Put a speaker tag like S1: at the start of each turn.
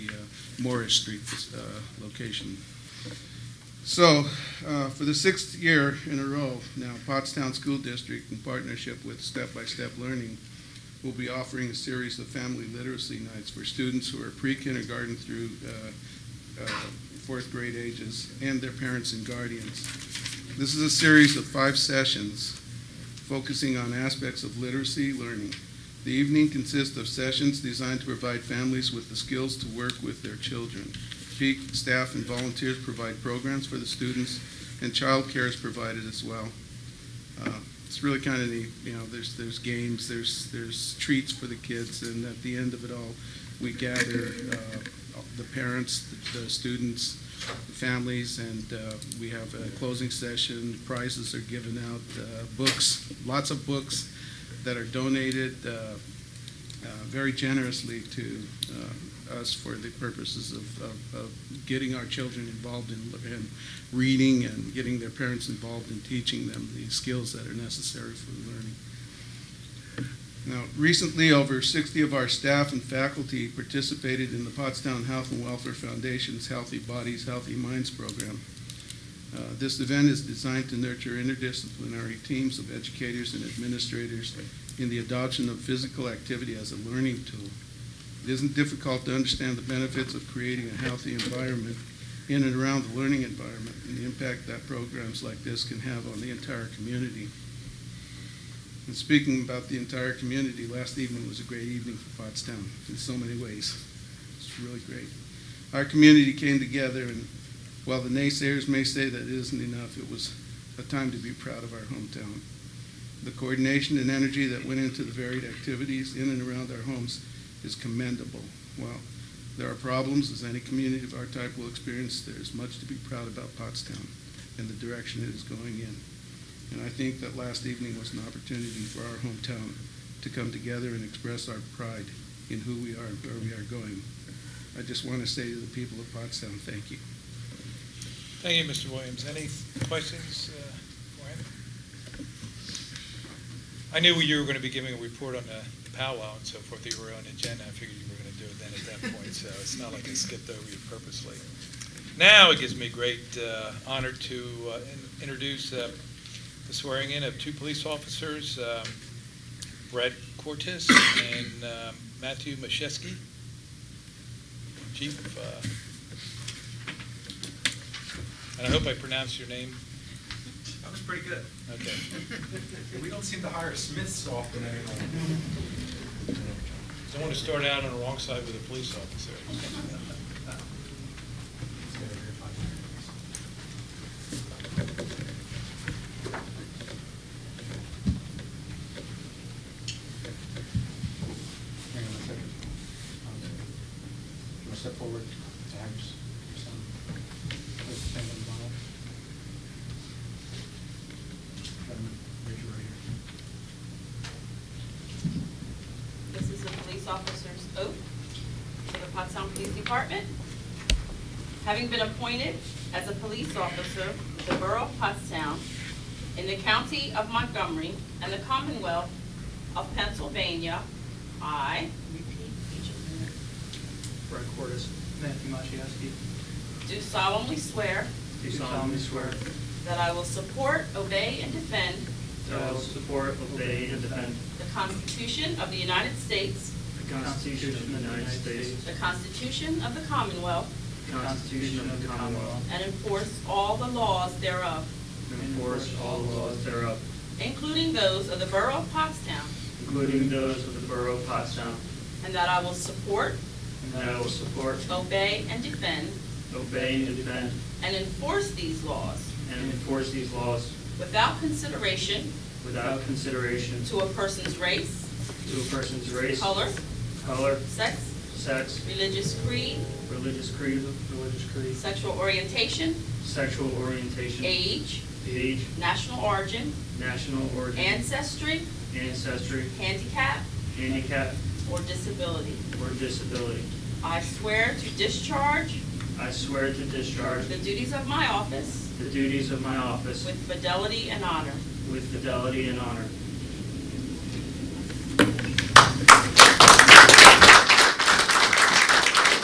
S1: Morris uh, Street uh, location. So, uh, for the sixth year in a row, now Pottstown School District, in partnership with Step by Step Learning, will be offering a series of family literacy nights for students who are pre-kindergarten through uh, uh, fourth grade ages and their parents and guardians. This is a series of five sessions focusing on aspects of literacy learning. The evening consists of sessions designed to provide families with the skills to work with their children. Peak staff and volunteers provide programs for the students, and childcare is provided as well. Uh, It's really kind of neat, you know, there's, there's games, there's, there's treats for the kids, and at the end of it all, we gather uh, the parents, the students, the families, and uh, we have a closing session, prizes are given out, uh, books, lots of books that are donated uh, uh, very generously to uh, us for the purposes of- of of getting our children involved in in reading and getting their parents involved in teaching them the skills that are necessary for learning. Now, recently, over 60 of our staff and faculty participated in the Pottstown Health and Welfare Foundation's Healthy Bodies, Healthy Minds program. Uh, This event is designed to nurture interdisciplinary teams of educators and administrators in the adoption of physical activity as a learning tool. It isn't difficult to understand the benefits of creating a healthy environment in and around the learning environment and the impact that programs like this can have on the entire community. And speaking about the entire community, last evening was a great evening for Pottstown in so many ways. It's really great. Our community came together and while the naysayers may say that it isn't enough, it was a time to be proud of our hometown. The coordination and energy that went into the varied activities in and around our homes is commendable. While there are problems, as any community of our type will experience, there is much to be proud about Pottstown and the direction it is going in. And I think that last evening was an opportunity for our hometown to come together and express our pride in who we are and where we are going. I just want to say to the people of Pottstown, thank you.
S2: Thank you, Mr. Williams. Any questions uh, for him? I knew you were going to be giving a report on the powwow and so forth, you were on agenda, I figured you were going to do it then at that point, so it's not like I skipped over you purposely. Now it gives me great uh, honor to uh, in- introduce uh, the swearing-in of two police officers, um, Brett Cortez and um, Matthew Machewski. Chief, uh, and I hope I pronounced your name
S3: That was pretty good.
S2: Okay.
S3: We don't seem to hire Smiths often anymore. Uh,
S2: Don't want to start out on the wrong side with a police officer.
S4: Hang on a second. Um, Do you want to step forward? Thanks. Some- Put your hand on the Bible. Um, Raise your right hand.
S5: This is a police officer's oath for the Pottstown Police Department. Having been appointed as a police officer of the Borough of Pottstown in the County of Montgomery and the Commonwealth of Pennsylvania, I, repeat each of
S6: Brett Cordes, Matthew Machewski,
S5: them, do solemnly swear
S6: do solemnly swear
S5: that I will support, obey, and defend
S6: that I will support, obey, and defend
S5: the Constitution of the United States,
S6: the Constitution of the United States,
S5: the Constitution of the Commonwealth,
S6: the Constitution of the Commonwealth,
S5: and enforce all the laws thereof,
S6: and enforce all the laws thereof,
S5: including those of the Borough of Pottstown,
S6: including those of the Borough of Pottstown,
S5: and that I will support,
S6: and that I will support,
S5: obey, and defend,
S6: obey, and defend,
S5: and enforce these laws
S6: and enforce these laws
S5: without consideration
S6: without consideration
S5: to a person's race,
S6: to a person's race,
S5: color,
S6: color,
S5: sex,
S6: sex,
S5: religious creed,
S6: religious creed, religious creed,
S5: sexual orientation,
S6: sexual orientation,
S5: age,
S6: age,
S5: national origin,
S6: national origin,
S5: ancestry,
S6: ancestry,
S5: handicap,
S6: handicap,
S5: or disability.
S6: or disability.
S5: I swear to discharge
S6: I swear to discharge
S5: the duties of my office
S6: the duties of my office
S5: with fidelity and honor,
S6: with fidelity and honor,